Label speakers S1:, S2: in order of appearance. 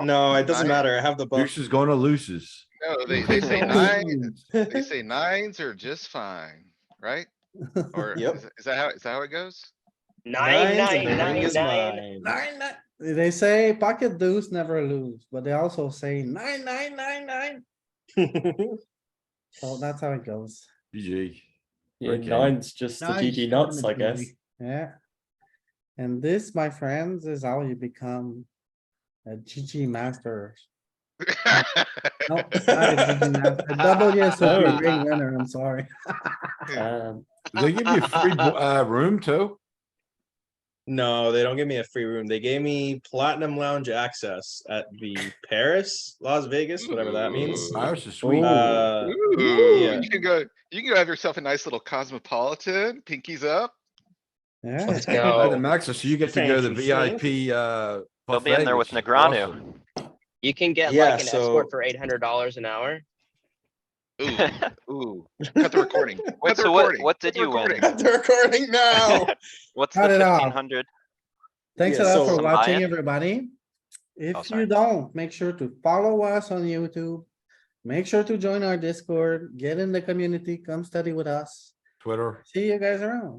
S1: No, it doesn't
S2: Nine.
S1: matter. I have the book.
S3: Deuce is going to loses.
S2: No, they, they say nines, they say nines are just fine, right? Or
S1: Yep.
S2: is is that how, is that how it goes?
S4: Nine,
S1: Nines and the ring
S4: nine, nine,
S1: is mine.
S4: nine. Nine, nine, they say pocket deuce never lose, but they also say nine, nine, nine, nine. So that's how it goes.
S3: GG.
S5: Yeah,
S3: Okay.
S5: nine's just the
S4: Nine's
S5: GG nuts, I guess.
S4: definitely Yeah. And this, my friends, is how you become a GG master. No, not a GG master, a WSOP ring winner, I'm sorry.
S5: Um,
S3: Do They give you free, bo- uh, room too?
S1: No, they don't give me a free room. They gave me platinum lounge access at the Paris, Las Vegas, whatever that means.
S2: Ooh.
S3: Ours is sweet.
S1: Uh,
S2: Ooh,
S1: yeah.
S2: you can go, you can go have yourself a nice little cosmopolitan, pinkies up.
S4: Yeah,
S6: Let's
S3: By the
S6: go.
S3: max, so you get to go to the
S6: Fancy stuff.
S3: VIP, uh.
S7: oh. They'll be in there with
S3: buffet, which is
S7: Negreanu.
S3: awesome.
S6: You can get
S1: Yeah,
S6: like an
S1: so-
S6: escort for eight hundred dollars an hour.
S2: Ooh, ooh, cut the recording. cut the
S7: so what-
S2: recording,
S7: what
S2: cut
S7: did
S2: the
S7: you win?
S2: recording.
S1: Cut the recording now.
S7: What's the
S4: Cut it off.
S7: fifteen hundred?
S4: thanks a
S1: Yeah,
S4: lot
S1: so-
S4: for watching,
S7: Buy-in?
S4: everybody.
S7: Oh,
S4: If
S7: sorry.
S4: you don't, make sure to follow us on YouTube. Make sure to join our Discord, get in the community, come study with us.
S3: Twitter.
S4: See you guys around.